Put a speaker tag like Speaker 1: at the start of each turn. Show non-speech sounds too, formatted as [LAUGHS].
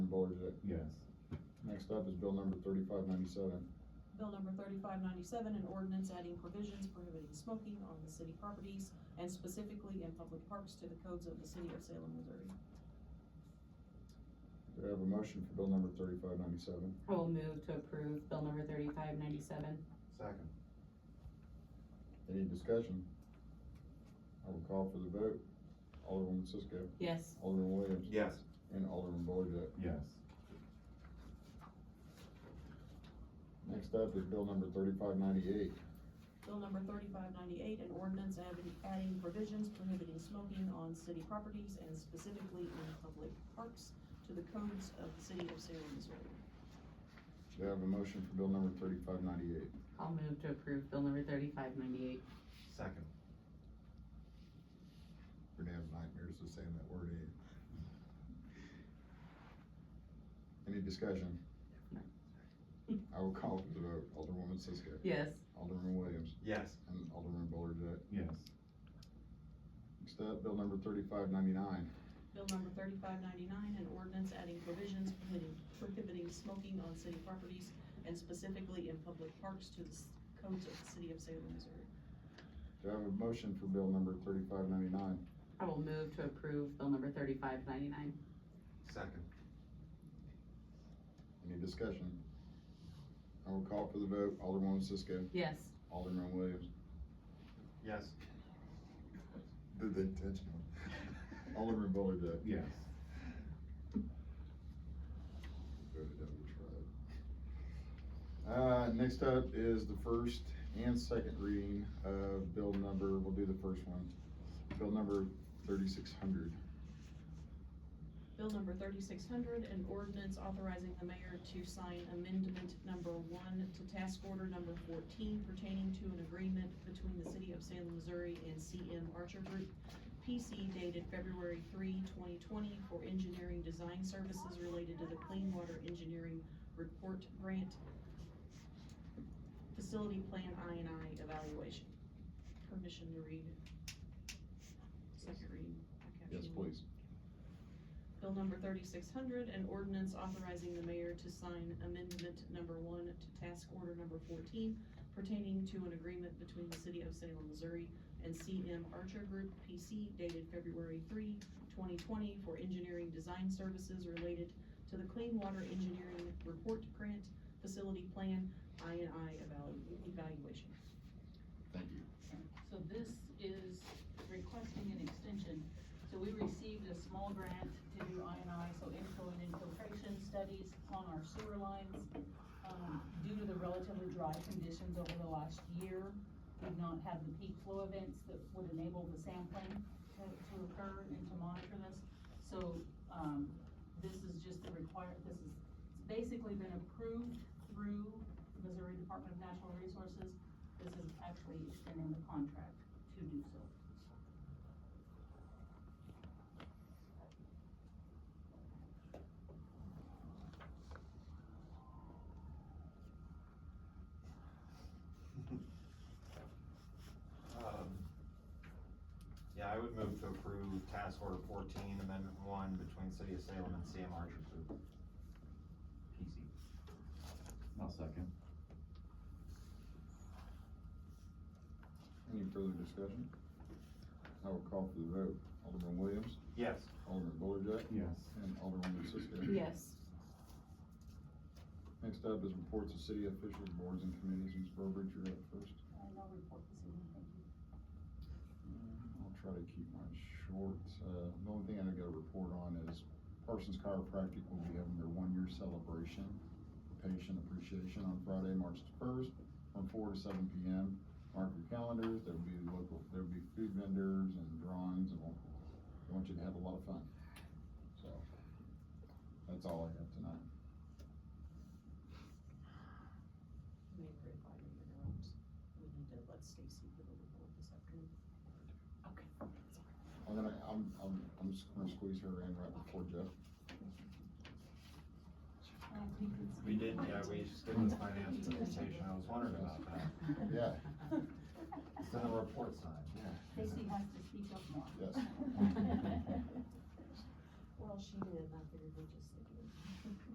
Speaker 1: board today.
Speaker 2: Yes.
Speaker 1: Next up is bill number thirty-five ninety-seven.
Speaker 3: Bill number thirty-five ninety-seven, an ordinance adding provisions prohibiting smoking on the city properties and specifically in public parks to the codes of the city of Salem, Missouri.
Speaker 1: Do I have a motion for bill number thirty-five ninety-seven?
Speaker 4: I will move to approve bill number thirty-five ninety-seven.
Speaker 2: Second.
Speaker 1: Any discussion? I will call for the vote. Alderman Cisco,
Speaker 4: Yes.
Speaker 1: Alderman Williams,
Speaker 2: Yes.
Speaker 1: and Alderman Boyd.
Speaker 2: Yes.
Speaker 1: Next up is bill number thirty-five ninety-eight.
Speaker 3: Bill number thirty-five ninety-eight, an ordinance adding, adding provisions prohibiting smoking on city properties and specifically in public parks to the codes of the city of Salem, Missouri.
Speaker 1: Do I have a motion for bill number thirty-five ninety-eight?
Speaker 4: I'll move to approve bill number thirty-five ninety-eight.
Speaker 2: Second.
Speaker 1: Renee has nightmares of saying that word eight. Any discussion?
Speaker 4: No.
Speaker 1: I will call for the vote. Alderwoman Cisco,
Speaker 4: Yes.
Speaker 1: Alderman Williams,
Speaker 2: Yes.
Speaker 1: and Alderman Boyd.
Speaker 2: Yes.
Speaker 1: Next up, bill number thirty-five ninety-nine.
Speaker 3: Bill number thirty-five ninety-nine, an ordinance adding provisions prohibiting, prohibiting smoking on city properties and specifically in public parks to the s- codes of the city of Salem, Missouri.
Speaker 1: Do I have a motion for bill number thirty-five ninety-nine?
Speaker 4: I will move to approve bill number thirty-five ninety-nine.
Speaker 2: Second.
Speaker 1: Any discussion? I will call for the vote. Alderwoman Cisco,
Speaker 4: Yes.
Speaker 1: Alderman Williams.
Speaker 2: [LAUGHS] Yes.
Speaker 1: Did they intentional? Alderman Boyd.
Speaker 2: Yes.
Speaker 1: Go to Devil Tribe. Uh, next up is the first and second reading of bill number, we'll do the first one. Bill number thirty-six hundred.
Speaker 3: Bill number thirty-six hundred, an ordinance authorizing the mayor to sign amendment number one to task order number fourteen pertaining to an agreement between the city of Salem, Missouri and CM Archer Group, PC dated February 3, 2020, for engineering design services related to the Clean Water Engineering Report Grant Facility Plan I and I evaluation. Permission to read. Second reading. I
Speaker 1: Yes,
Speaker 3: captioned.
Speaker 1: please.
Speaker 3: Bill number thirty-six hundred, an ordinance authorizing the mayor to sign amendment number one to task order number fourteen pertaining to an agreement between the city of Salem, Missouri and CM Archer Group PC dated February 3, 2020, for engineering design services related to the Clean Water Engineering Report Grant Facility Plan I and I evaluation.
Speaker 1: Thank you.
Speaker 5: So this is requesting an extension. So we received a small grant to do INI, so inflow and infiltration studies on our sewer lines. Um, due to the relatively dry conditions over the last year, we've not had the peak flow events that would enable the sampling to, to occur and to monitor this. So, um, this is just the required, this is, it's basically been approved through Missouri Department of Natural Resources. This is actually extending the contract to do so.
Speaker 6: Um, Yeah, I would move to approve task order fourteen, amendment one between City of Salem and CM Archer Group. PC.
Speaker 2: I'll second.
Speaker 1: Any further discussion? I will call for the vote. Alderman Williams,
Speaker 6: Yes.
Speaker 1: Alderman Boyd,
Speaker 2: Yes.
Speaker 1: and Alderman Cisco.
Speaker 4: Yes.
Speaker 1: Next up is reports of city officials, boards and committees. Ms. Burbridge, you're up first.
Speaker 5: I no report this evening, thank you.
Speaker 1: I'll try to keep mine short. Uh, the only thing I got a report on is Parsons Chiropractic will be having their one-year celebration, for patient appreciation on Friday, March first, from four to seven P M. Mark your calendars, there'll be local, there'll be food vendors and drawings, and we'll- I want you to have a lot of fun. So, that's all I have tonight.
Speaker 3: May I interrupt? We need to let Stacy give a report this afternoon. Okay.
Speaker 1: I'm gonna, I'm, I'm, I'm just gonna squeeze her in right before Jeff.
Speaker 6: We did, yeah, we skipped the finance
Speaker 3: [LAUGHS]
Speaker 6: presentation, I was wondering about that.
Speaker 1: Yeah.
Speaker 6: It's in the report side, yeah.
Speaker 5: Stacy has to speak up more.
Speaker 1: Yes.
Speaker 5: [LAUGHS]
Speaker 3: Well, she did, I figured we just.